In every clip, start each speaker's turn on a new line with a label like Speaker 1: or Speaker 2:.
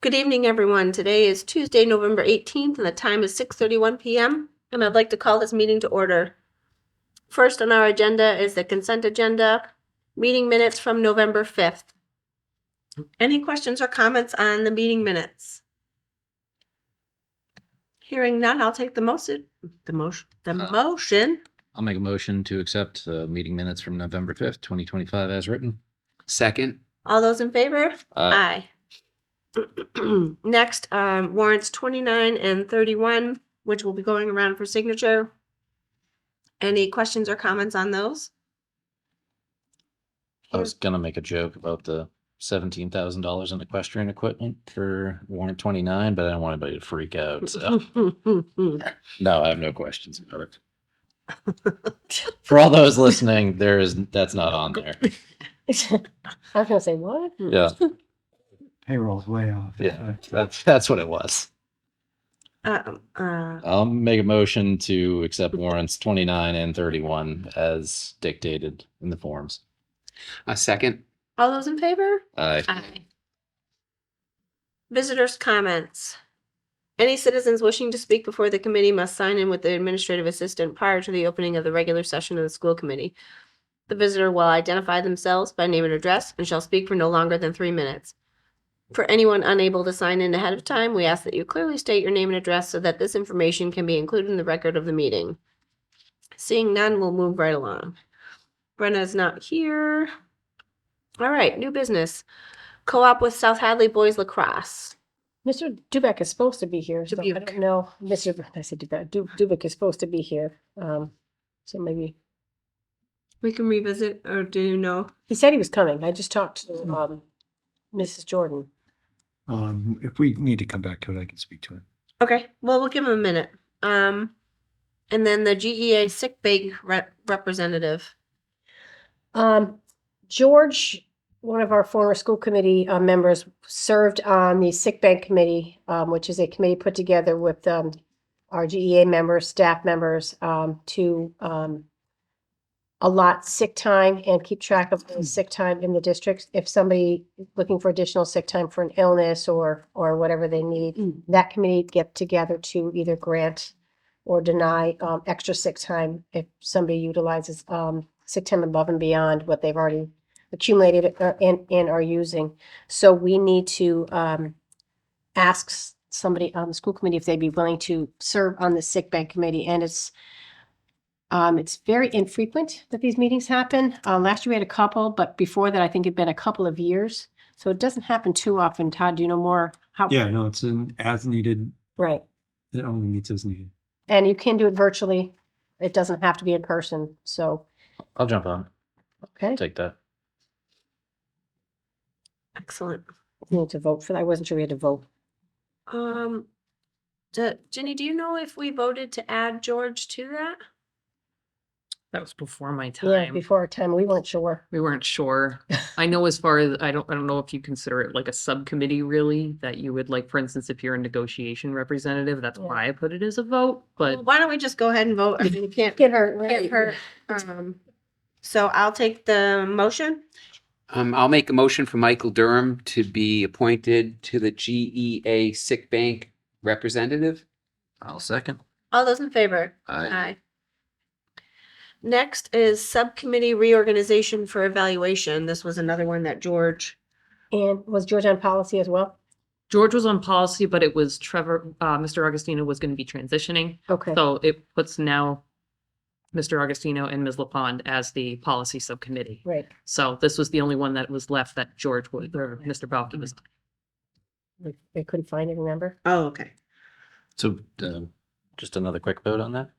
Speaker 1: Good evening, everyone. Today is Tuesday, November eighteenth, and the time is six thirty-one PM, and I'd like to call this meeting to order. First on our agenda is the consent agenda, meeting minutes from November fifth. Any questions or comments on the meeting minutes? Hearing none, I'll take the motion, the motion, the
Speaker 2: Uh.
Speaker 1: motion.
Speaker 2: I'll make a motion to accept the meeting minutes from November fifth, twenty twenty-five as written.
Speaker 3: Second,
Speaker 1: All those in favor?
Speaker 2: Uh,
Speaker 1: Aye. Next, um, warrants twenty-nine and thirty-one, which will be going around for signature. Any questions or comments on those?
Speaker 2: I was gonna make a joke about the seventeen thousand dollars in equestrian equipment for warrant twenty-nine, but I don't want anybody to freak out, so. No, I have no questions about it. For all those listening, there is, that's not on there.
Speaker 4: I was gonna say what?
Speaker 2: Yeah,
Speaker 5: payroll's way off.
Speaker 2: yeah, that's, that's what it was.
Speaker 1: Uh, uh,
Speaker 2: I'll make a motion to accept warrants twenty-nine and thirty-one as dictated in the forms.
Speaker 3: a second,
Speaker 1: All those in favor?
Speaker 2: Aye.
Speaker 1: Aye. Visitors' comments. Any citizens wishing to speak before the committee must sign in with the administrative assistant prior to the opening of the regular session of the school committee. The visitor will identify themselves by name and address and shall speak for no longer than three minutes. For anyone unable to sign in ahead of time, we ask that you clearly state your name and address so that this information can be included in the record of the meeting. Seeing none, we'll move right along. Brenna's not here. All right, new business co-op with South Hadley Boys Lacrosse.
Speaker 4: Mr. Dubek is supposed to be here. so I
Speaker 1: Dubuque.
Speaker 4: don't know. Mr. B- I said Dubek. Du- Dubek is supposed to be here. Um, so maybe
Speaker 1: We can revisit, or do you know?
Speaker 4: he said he was coming. I just talked
Speaker 5: Hmm.
Speaker 4: to um, Mrs. Jordan.
Speaker 5: Um, if we need to come back to it, I can speak to it.
Speaker 1: Okay, well, we'll give him a minute. Um, and then the GEA sick bank rep- representative.
Speaker 4: Um, George, one of our former school committee uh, members, served on the sick bank committee, um, which is a committee put together with um, our GEA members, staff members, um, to um, allot sick time and keep track of the sick time in the districts. If somebody is looking for additional sick time for an illness or or whatever they need,
Speaker 1: Mm.
Speaker 4: that committee get together to either grant or deny um, extra sick time if somebody utilizes um, sick time above and beyond what they've already accumulated uh, and, and are using. So we need to um, ask s- somebody on the school committee if they'd be willing to serve on the sick bank committee. And it's um, it's very infrequent that these meetings happen. Uh, last year we had a couple, but before that, I think it'd been a couple of years. So it doesn't happen too often. Todd, do you know more? How?
Speaker 5: Yeah, no, it's an as needed,
Speaker 4: Right.
Speaker 5: it only meets as needed.
Speaker 4: And you can do it virtually. It doesn't have to be in person. So,
Speaker 2: I'll jump on,
Speaker 4: okay.
Speaker 2: take that.
Speaker 1: Excellent.
Speaker 4: You Need to vote for that. I wasn't sure we had to vote.
Speaker 1: Um, d- Jenny, do you know if we voted to add George to that?
Speaker 6: That was before my
Speaker 4: Yeah,
Speaker 6: time.
Speaker 4: before our time, we weren't sure.
Speaker 6: We weren't sure. I know as far as, I don't, I don't know if you consider it like a subcommittee really, that you would like, for instance, if you're a negotiation representative, that's
Speaker 4: Yeah.
Speaker 6: why I put it as a vote,
Speaker 1: Well,
Speaker 6: but
Speaker 1: Why don't we just go ahead and vote? I mean, you can't
Speaker 4: Get her,
Speaker 1: get
Speaker 4: right.
Speaker 1: hurt. Um, so I'll take the motion.
Speaker 3: um, I'll make a motion for Michael Durham to be appointed to the GEA Sick Bank representative.
Speaker 2: I'll second.
Speaker 1: All those in favor?
Speaker 2: Aye.
Speaker 1: Aye. Next is subcommittee reorganization for evaluation. This was another one that George,
Speaker 4: And was George on policy as well?
Speaker 6: George was on policy, but it was Trevor, uh, Mr. Augustino was going to be transitioning.
Speaker 4: Okay.
Speaker 6: So it puts now Mr. Augustino and Ms. LaPond as the policy subcommittee.
Speaker 4: Right.
Speaker 6: So this was the only one that was left that George would, or Mr. Balki was.
Speaker 4: We- We couldn't find it, remember?
Speaker 1: oh, okay.
Speaker 2: So, um, just another quick vote on that.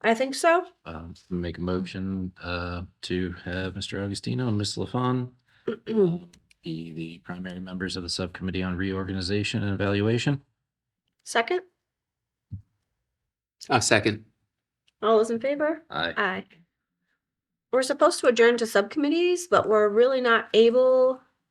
Speaker 1: I think so.
Speaker 2: Um, make a motion, uh, to have Mr. Augustino and Ms. LaFawn uh, be the primary members of the Subcommittee on Reorganization and Evaluation.
Speaker 1: Second,
Speaker 3: A second,
Speaker 1: all those in favor?
Speaker 2: Aye.
Speaker 1: Aye. We're supposed to adjourn to subcommittees, but we're really not able